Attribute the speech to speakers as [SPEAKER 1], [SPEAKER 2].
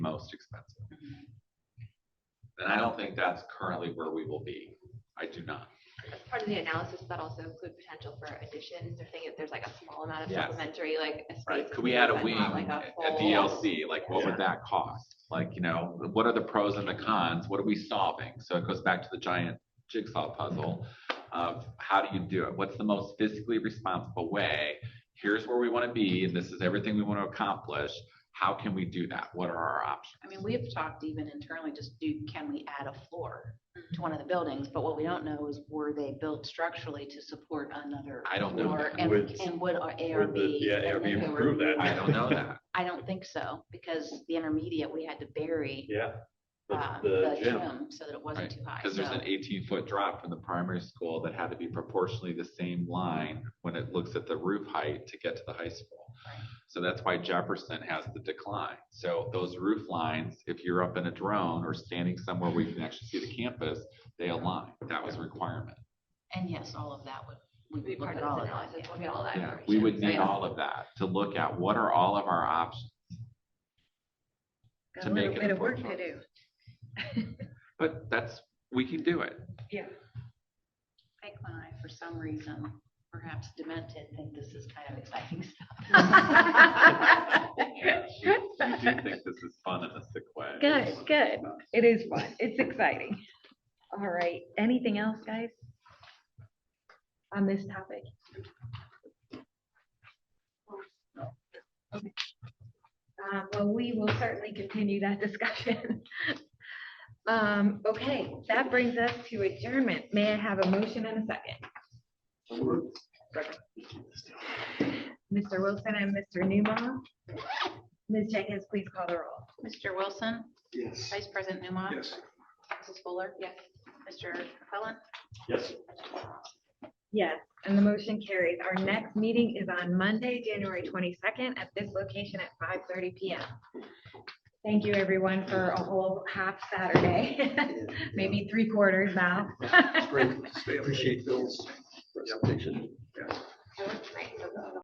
[SPEAKER 1] And I don't think that's currently where we will be. I do not.
[SPEAKER 2] As part of the analysis, but also include potential for additions, or think if there's like a small amount of
[SPEAKER 1] Yes.
[SPEAKER 2] supplementary, like a space.
[SPEAKER 1] Right,
[SPEAKER 2] is
[SPEAKER 1] could we add a
[SPEAKER 2] needed,
[SPEAKER 1] wing
[SPEAKER 2] but not like a full-
[SPEAKER 1] at DLC, like what would that cost? Like, you know, what are the pros and the cons, what are we solving? So it goes back to the giant jigsaw puzzle of how do you do it? What's the most fiscally responsible way? Here's where we want to be, and this is everything we want to accomplish, how can we do that? What are our options?
[SPEAKER 3] I mean, we've talked even internally, just do, can we add a floor to one of the buildings? But what we don't know is were they built structurally to support another?
[SPEAKER 1] I don't know
[SPEAKER 3] floor?
[SPEAKER 1] that.
[SPEAKER 3] And,
[SPEAKER 4] Would-
[SPEAKER 3] and would our
[SPEAKER 4] would the-
[SPEAKER 3] ARB?
[SPEAKER 4] yeah,
[SPEAKER 3] and
[SPEAKER 4] ARB
[SPEAKER 3] if they were-
[SPEAKER 4] approve that?
[SPEAKER 1] I don't know that.
[SPEAKER 3] I don't think so, because the intermediate, we had to bury,
[SPEAKER 4] Yeah.
[SPEAKER 3] uh,
[SPEAKER 1] Um,
[SPEAKER 4] The-
[SPEAKER 3] the
[SPEAKER 4] The gym,
[SPEAKER 3] gym so that it wasn't
[SPEAKER 1] Right,
[SPEAKER 3] too high.
[SPEAKER 1] Because there's
[SPEAKER 3] So-
[SPEAKER 1] an eighteen foot drop from the primary school that had to be proportionally the same line when it looks at the roof height to get to the high school.
[SPEAKER 3] Right.
[SPEAKER 1] So that's why Jefferson has the decline. So those roof lines, if you're up in a drone or standing somewhere where you can actually see the campus, they align. That was a requirement.
[SPEAKER 3] And yes, all of that would, we
[SPEAKER 2] Would be
[SPEAKER 3] would look
[SPEAKER 2] part
[SPEAKER 3] at
[SPEAKER 2] of
[SPEAKER 3] all
[SPEAKER 2] this
[SPEAKER 3] of that.
[SPEAKER 2] analysis, we'll get all that
[SPEAKER 1] Yeah,
[SPEAKER 2] information.
[SPEAKER 1] we would
[SPEAKER 2] So,
[SPEAKER 5] Oh,
[SPEAKER 1] need
[SPEAKER 2] yeah.
[SPEAKER 1] all of that to look at what are all of our options.
[SPEAKER 5] Got
[SPEAKER 1] to
[SPEAKER 5] a lot
[SPEAKER 1] make
[SPEAKER 5] of
[SPEAKER 1] it
[SPEAKER 5] bit of work
[SPEAKER 1] affordable.
[SPEAKER 5] to do.
[SPEAKER 1] But that's, we can do it.
[SPEAKER 5] Yeah.
[SPEAKER 3] Pike and I, for some reason, perhaps demented, think this is kind of exciting stuff.
[SPEAKER 1] Yeah, You you do think this is fun in a sick way.
[SPEAKER 5] Good, good. It is fun. It's exciting. All right. Anything else, guys? On this topic? Okay. Uh, well, we will certainly continue that discussion. Um, okay, that brings us to adjournment. May I have a motion and a second? Mr. Wilson and Mr. Newmaw. Ms. Jenkins, please call the roll.
[SPEAKER 3] Mr. Wilson,
[SPEAKER 4] Yes.
[SPEAKER 3] Vice President Newmaw.
[SPEAKER 4] Yes.
[SPEAKER 3] Mrs. Fuller. Yes. Mr. Cullen.
[SPEAKER 4] Yes.
[SPEAKER 5] Yes, and the motion carries. Our next meeting is on Monday, January twenty-second, at this location at five thirty P M. Thank you, everyone, for a whole half Saturday, maybe three quarters now.
[SPEAKER 6] Great. Appreciate Bill's presentation.